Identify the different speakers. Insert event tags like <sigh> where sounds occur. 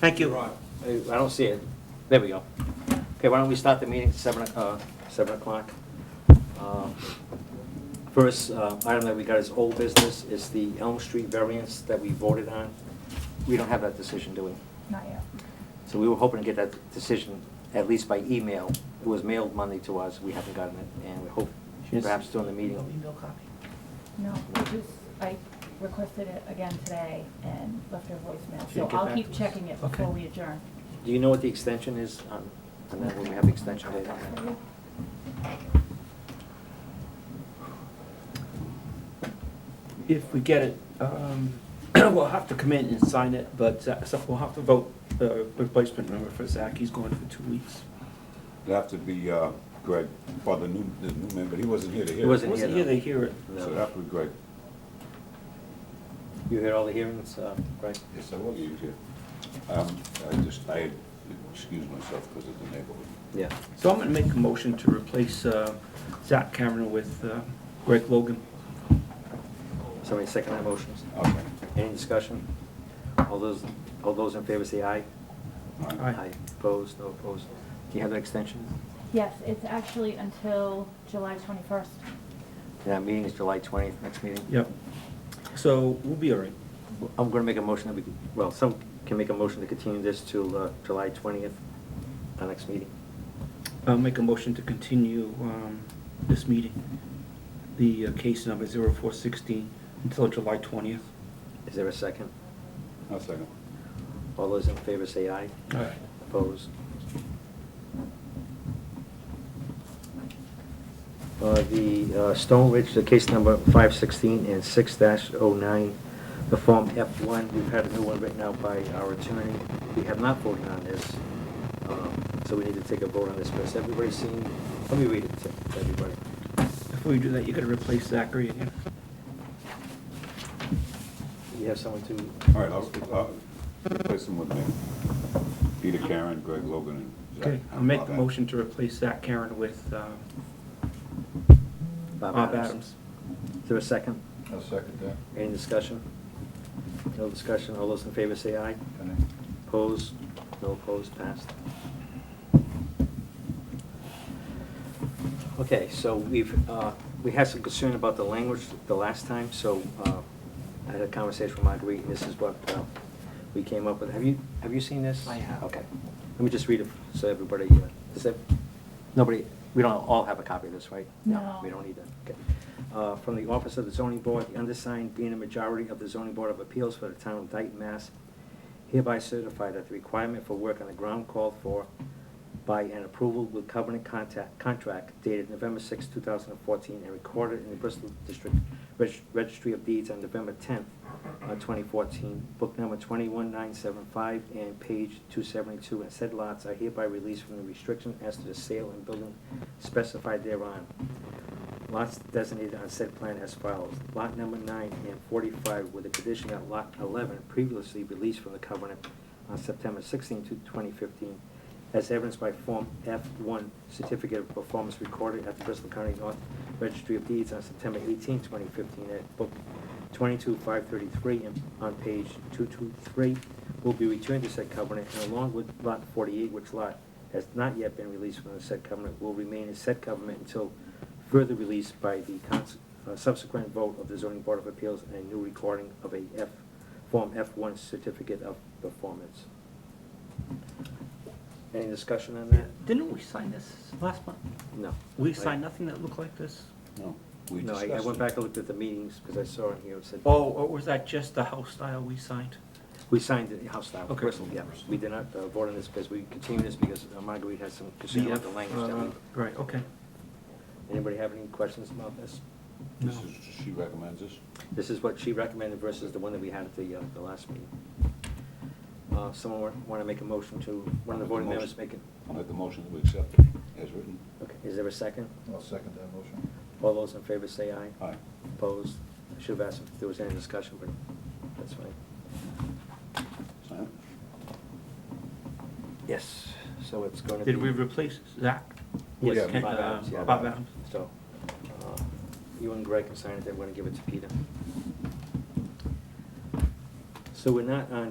Speaker 1: Thank you.
Speaker 2: Right.
Speaker 3: I I don't see it. There we go. Okay, why don't we start the meeting at seven, o- uh, seven o'clock? Um, First, uh, item that we got is old business, is the Elm Street variance that we voted on. We don't have that decision, do we?
Speaker 4: Not yet.
Speaker 3: So we were hoping to get that decision at least by email. It was mailed Monday to us, we haven't gotten it, and we hope
Speaker 1: Yes.
Speaker 3: perhaps during the meeting.
Speaker 5: Email copy.
Speaker 4: No, we just, I requested it again today and left her voicemail, so
Speaker 1: She'll get
Speaker 4: I'll
Speaker 1: back
Speaker 4: keep
Speaker 1: to us.
Speaker 4: checking it before
Speaker 1: Okay.
Speaker 4: we adjourn.
Speaker 3: Do you know what the extension is on, on that, when we have the extension date on that?
Speaker 1: If we get it, um, <clears throat> we'll have to come in and sign it, but uh, so we'll have to vote the replacement member for Zach. He's going for two weeks.
Speaker 6: It'd have to be uh, Greg, for the new, the new member, he wasn't here to hear.
Speaker 3: He
Speaker 6: it.
Speaker 3: wasn't
Speaker 1: Wasn't
Speaker 3: though.
Speaker 1: here to hear it.
Speaker 6: So it'd have to be Greg.
Speaker 3: You hear all the hearings, uh, right?
Speaker 6: Yes, I was here. Um, I just, I had excused myself because of the neighborhood.
Speaker 3: Yeah.
Speaker 1: So I'm gonna make a motion to replace uh, Zach Cameron with uh, Greg Logan.
Speaker 3: Somebody second that motion?
Speaker 6: Okay.
Speaker 3: Any discussion? All those, all those in favor say aye.
Speaker 6: All right.
Speaker 1: Aye.
Speaker 3: Opposed, no opposed. Do you have an extension?
Speaker 4: Yes, it's actually until July twenty-first.
Speaker 3: Yeah, meeting is July 20th, next meeting?
Speaker 1: Yep. So we'll be all right.
Speaker 3: I'm going to make a motion that we, could- well, some can make a motion to continue this till uh, July 20th, our next meeting.
Speaker 1: I'll make a motion to continue um, this meeting, the uh, case number 0416, until July 20th.
Speaker 3: Is there a second?
Speaker 6: I'll second.
Speaker 3: All those in favor say aye.
Speaker 1: All right.
Speaker 3: Opposed? Uh, The uh, Stone Ridge, the case number 516 and 6-09, the Form F1, we've had a new one written out by our attorney. We have not voted on this, um, so we need to take a vote on this. Has everybody seen, let me read it to everybody.
Speaker 1: Before you do that, you gotta replace Zachary again.
Speaker 3: You have someone to,
Speaker 6: All right, I'll, I'll replace him with me. Peter Karen, Greg Logan, and Zach.
Speaker 1: Okay, I'll
Speaker 6: How
Speaker 1: make
Speaker 6: about
Speaker 1: the
Speaker 6: that?
Speaker 1: motion to replace Zach Karen with um,
Speaker 3: Bob
Speaker 1: Bob
Speaker 3: Adams.
Speaker 1: Adams.
Speaker 3: Is there a second?
Speaker 6: I'll second that.
Speaker 3: Any discussion? No discussion, all those in favor say aye.
Speaker 6: And then-
Speaker 3: Opposed? No opposed, passed. Okay, so we've, uh, we had some concern about the language the last time, so uh, I had a conversation with Marguerite, and this is what uh, we came up with. Have you, have you seen this?
Speaker 5: I have.
Speaker 3: Okay. Let me just read it so everybody, uh, is that, nobody, we don't all have a copy of this, right?
Speaker 4: No.
Speaker 3: We don't need that, okay. Uh, From the Office of the Zoning Board, the undersigned being a majority of the Zoning Board of Appeals for the town of Dayton, Mass, hereby certify that the requirement for work on the ground called for by an approval with covenant contact, contract dated November 6, 2014, and recorded in the Bristol District Reg- Registry of Deeds on November 10th, uh, 2014, book number 21975 and page 272, and said lots are hereby released from the restriction as to the sale and building specified thereon. Lots designated on said plan as follows. Lot number nine and forty-five with the condition that lot eleven previously released from the covenant on September 16, to twenty fifteen, as evidenced by Form F one certificate of performance recorded at the Bristol County North Registry of Deeds on September 18, 2015, at book twenty-two five thirty-three and on page two-two-three will be returned to said covenant and along with lot forty-eight, which lot has not yet been released from the said covenant, will remain in said covenant until further released by the cons- uh, subsequent vote of the zoning board of appeals and a new recording of a F, Form F1 certificate of performance. Any discussion on that?
Speaker 1: Didn't we sign this last month?
Speaker 3: No.
Speaker 1: We signed nothing that looked like this?
Speaker 6: No, we
Speaker 3: No,
Speaker 6: discussed
Speaker 3: I- I
Speaker 6: it.
Speaker 3: went back and looked at the meetings because I saw in here it said.
Speaker 1: Oh, or was that just the house style we signed?
Speaker 3: We signed it house style,
Speaker 1: Okay.
Speaker 3: Bristol, yeah. We did not uh, vote on this because we continued this because uh, Marguerite had some concern about the language. that we-
Speaker 1: Uh, Right, okay.
Speaker 3: Anybody have any questions about this?
Speaker 6: This
Speaker 1: No.
Speaker 6: is, she recommends this?
Speaker 3: This is what she recommended versus the one that we had at the, uh, the last meeting. Uh, someone want to make a motion to, one of the voting members make it?
Speaker 6: I'll make the motion that we accept it as written.
Speaker 3: Okay, is there a second?
Speaker 5: I'll second that motion.
Speaker 3: All those in favor say aye.
Speaker 6: Aye.
Speaker 3: Opposed? I should have asked if there was any discussion, but that's fine.
Speaker 6: Sign it?
Speaker 3: Yes, so it's going to be.
Speaker 1: Did we replace Zach?
Speaker 3: Yes,
Speaker 1: with Ken-
Speaker 3: Bob
Speaker 1: uh,
Speaker 3: Adams, yeah.
Speaker 1: Bob Adams.
Speaker 3: So, uh, you and Greg can sign it, then we're going to give it to Peter. So we're not on